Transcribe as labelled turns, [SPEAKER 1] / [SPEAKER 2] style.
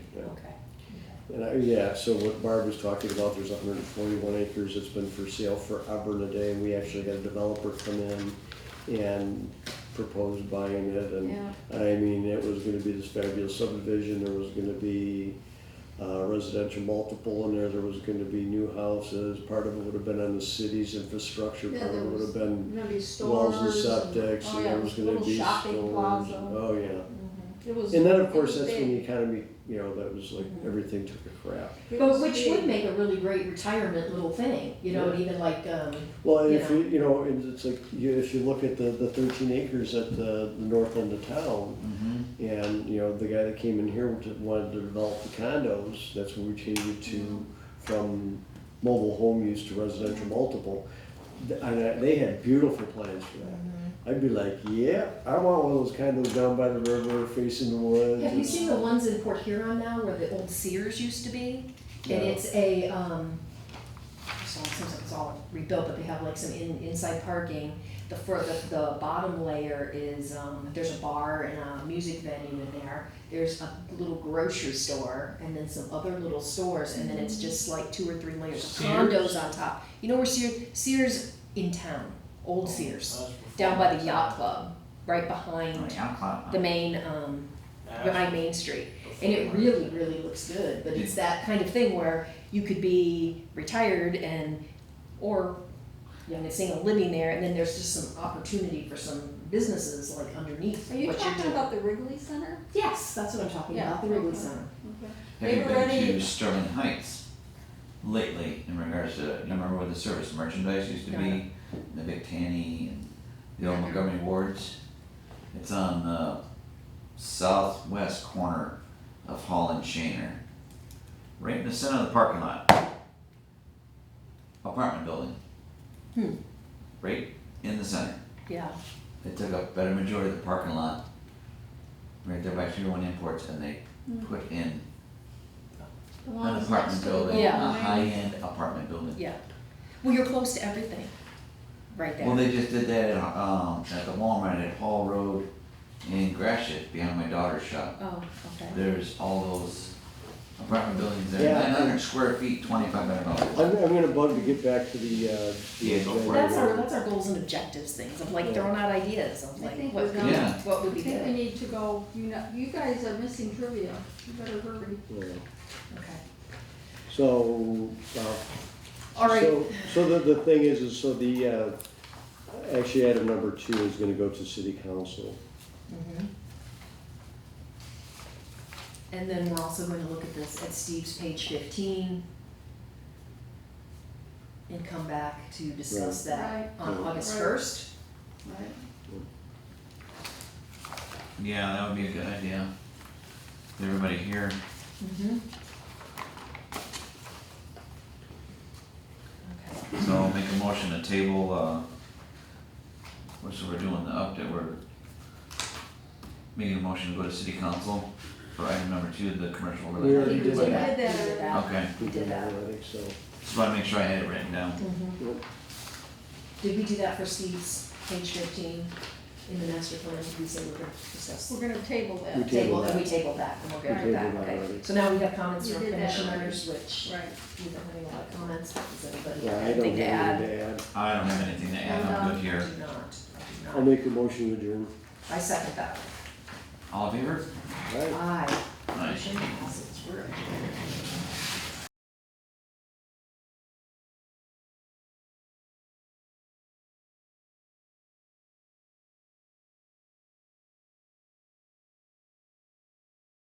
[SPEAKER 1] And I, yeah, so what Barb was talking about, there's hundred and forty-one acres that's been for sale forever and a day, and we actually had a developer come in and propose buying it, and I mean, it was gonna be this fabulous subdivision, there was gonna be uh, residential multiple in there, there was gonna be new houses, part of it would have been on the city's infrastructure,
[SPEAKER 2] Yeah,
[SPEAKER 1] part of
[SPEAKER 2] there
[SPEAKER 1] it would have
[SPEAKER 2] was-
[SPEAKER 1] been
[SPEAKER 2] Remember these
[SPEAKER 1] walls
[SPEAKER 2] stores?
[SPEAKER 1] and septic,
[SPEAKER 2] oh
[SPEAKER 1] and
[SPEAKER 2] yeah,
[SPEAKER 1] there was gonna
[SPEAKER 2] little
[SPEAKER 1] be
[SPEAKER 2] shopping
[SPEAKER 1] stores.
[SPEAKER 2] plaza.
[SPEAKER 1] Oh, yeah.
[SPEAKER 2] It was.
[SPEAKER 1] And then,
[SPEAKER 2] it
[SPEAKER 1] of course,
[SPEAKER 2] was
[SPEAKER 1] that's when the
[SPEAKER 2] big.
[SPEAKER 1] economy, you know, that was like,
[SPEAKER 3] Mm-hmm.
[SPEAKER 1] everything took a crap.
[SPEAKER 2] It
[SPEAKER 3] But
[SPEAKER 2] was
[SPEAKER 3] which
[SPEAKER 2] big.
[SPEAKER 3] would make a really great retirement little thing, you know,
[SPEAKER 1] Yeah.
[SPEAKER 3] even like, um,
[SPEAKER 1] Well, and if
[SPEAKER 3] Yeah.
[SPEAKER 1] you, you know, and it's like, you, if you look at the, the thirteen acres at the, the north end of town, and, you know, the guy that came in here wanted to- wanted to develop the condos, that's when we changed it
[SPEAKER 3] Mm-hmm.
[SPEAKER 1] to, from mobile home use to residential multiple. Th- And I- they had beautiful plans for that.
[SPEAKER 3] Mm-hmm.
[SPEAKER 1] I'd be like, yeah, I want one of those condos down by the river facing the woods.
[SPEAKER 3] have you seen the ones in Port Huron now where the old Sears used to be?
[SPEAKER 1] No.
[SPEAKER 3] And it's a, um, it's all, it seems like it's all rebuilt, but they have like some in, inside parking. The fir, the, the bottom layer is, um, there's a bar and a music venue in there. There's a little grocery store and then some other little stores and then it's just like two or three layers of
[SPEAKER 4] Sears?
[SPEAKER 3] condos on top. You know where Sears, Sears in town, old Sears. down by the yacht club, right
[SPEAKER 4] Oh,
[SPEAKER 3] behind
[SPEAKER 4] yacht club.
[SPEAKER 3] the main, um, behind Main Street.
[SPEAKER 4] That's
[SPEAKER 3] And it
[SPEAKER 4] before.
[SPEAKER 3] really, really looks good, but it's that kind of thing where you could be retired and, or, you know, single living there, and then there's just some opportunity for some businesses like underneath
[SPEAKER 2] Are
[SPEAKER 3] what
[SPEAKER 2] you
[SPEAKER 3] you're
[SPEAKER 2] talking
[SPEAKER 3] doing.
[SPEAKER 2] about the Wrigley Center?
[SPEAKER 3] Yes, that's what I'm talking
[SPEAKER 2] Yeah,
[SPEAKER 3] about, the Wrigley
[SPEAKER 2] okay.
[SPEAKER 3] Center.
[SPEAKER 2] Okay.
[SPEAKER 4] Have you
[SPEAKER 2] They've
[SPEAKER 4] been
[SPEAKER 2] already-
[SPEAKER 4] to Sterling Heights lately in regards to, you remember where the service merchandise used to
[SPEAKER 3] No, I
[SPEAKER 4] be? The Big Tanny and the old Montgomery Wards? It's on the southwest corner of Hall and Shaner. Right in the center of the parking lot. Apartment building.
[SPEAKER 3] Hmm.
[SPEAKER 4] Right in the center.
[SPEAKER 3] Yeah,
[SPEAKER 4] They took up better majority of the parking lot. Right there by Tier One Imports and they
[SPEAKER 2] Hmm.
[SPEAKER 4] put in
[SPEAKER 2] The one
[SPEAKER 4] an
[SPEAKER 2] that's
[SPEAKER 4] apartment
[SPEAKER 2] next to the
[SPEAKER 4] building, uh,
[SPEAKER 2] Golden
[SPEAKER 3] Yeah.
[SPEAKER 4] a
[SPEAKER 2] Wing.
[SPEAKER 4] high-end apartment building.
[SPEAKER 3] yeah. Well, you're close to everything, right
[SPEAKER 4] Well,
[SPEAKER 3] there.
[SPEAKER 4] they just did that at, um, at the Walmart at Hall Road in Gratiot, behind my daughter's shop.
[SPEAKER 3] Oh, okay.
[SPEAKER 4] There's all those apartment buildings there,
[SPEAKER 1] Yeah.
[SPEAKER 4] nine hundred square feet, twenty-five hundred dollars.
[SPEAKER 1] I'm, I'm gonna bug to get back to the, uh. the-
[SPEAKER 4] Yeah, go for it.
[SPEAKER 3] That's our, that's our goals and objectives things, of like throwing out ideas, of
[SPEAKER 2] I
[SPEAKER 3] like
[SPEAKER 2] think
[SPEAKER 3] what
[SPEAKER 2] we're
[SPEAKER 3] could,
[SPEAKER 4] done.
[SPEAKER 3] what would
[SPEAKER 2] I
[SPEAKER 3] be good.
[SPEAKER 2] think we need to go, you know, you guys are missing trivia, you better hurry.
[SPEAKER 1] Yeah.
[SPEAKER 3] Okay.
[SPEAKER 1] So, uh,
[SPEAKER 3] All right,
[SPEAKER 1] So, so the, the thing is, is so the, uh, actually item number two is gonna go to city council.
[SPEAKER 3] Mm-hmm. and then we're also going to look at this at Steve's page fifteen. And come back to discuss that
[SPEAKER 2] Right.
[SPEAKER 3] on
[SPEAKER 1] Right.
[SPEAKER 3] August
[SPEAKER 2] Right.
[SPEAKER 3] first.
[SPEAKER 2] Right.
[SPEAKER 4] Yeah, that would be a good idea. With Everybody here,
[SPEAKER 1] Mm-hmm.
[SPEAKER 3] Okay,
[SPEAKER 4] so I'll make a motion to table, uh, what's, we're doing the update, we're making a motion to go to city council for item number two, the commercial
[SPEAKER 1] We
[SPEAKER 4] related.
[SPEAKER 1] already did
[SPEAKER 2] We
[SPEAKER 1] that.
[SPEAKER 2] did that
[SPEAKER 3] We did
[SPEAKER 2] already.
[SPEAKER 3] that.
[SPEAKER 4] Okay,
[SPEAKER 3] We did that.
[SPEAKER 1] I think so.
[SPEAKER 4] just wanna make sure I had it written down.
[SPEAKER 3] Mm-hmm. Did we do that for Steve's page fifteen in the master plan? We said we we're gonna discuss.
[SPEAKER 2] We're gonna table that.
[SPEAKER 1] We tabled
[SPEAKER 3] Table, and we
[SPEAKER 1] that.
[SPEAKER 3] tabled that, and we're good
[SPEAKER 1] We
[SPEAKER 3] with that,
[SPEAKER 1] tabled that
[SPEAKER 3] okay.
[SPEAKER 1] already.
[SPEAKER 3] So now we have comments
[SPEAKER 2] We
[SPEAKER 3] from
[SPEAKER 2] did that
[SPEAKER 3] commissioners, which
[SPEAKER 2] Right.
[SPEAKER 3] we don't have any lot of comments, does anybody
[SPEAKER 1] Yeah,
[SPEAKER 3] have
[SPEAKER 1] I don't think
[SPEAKER 3] anything to add?
[SPEAKER 1] to add.
[SPEAKER 4] I don't have anything to add, I'm good here.
[SPEAKER 3] I do not, I do not.
[SPEAKER 1] I'll make a motion to adjourn.
[SPEAKER 3] I second that.
[SPEAKER 4] All in favor?
[SPEAKER 1] All right.
[SPEAKER 3] Aye.
[SPEAKER 4] Aye.
[SPEAKER 3] Motion passes.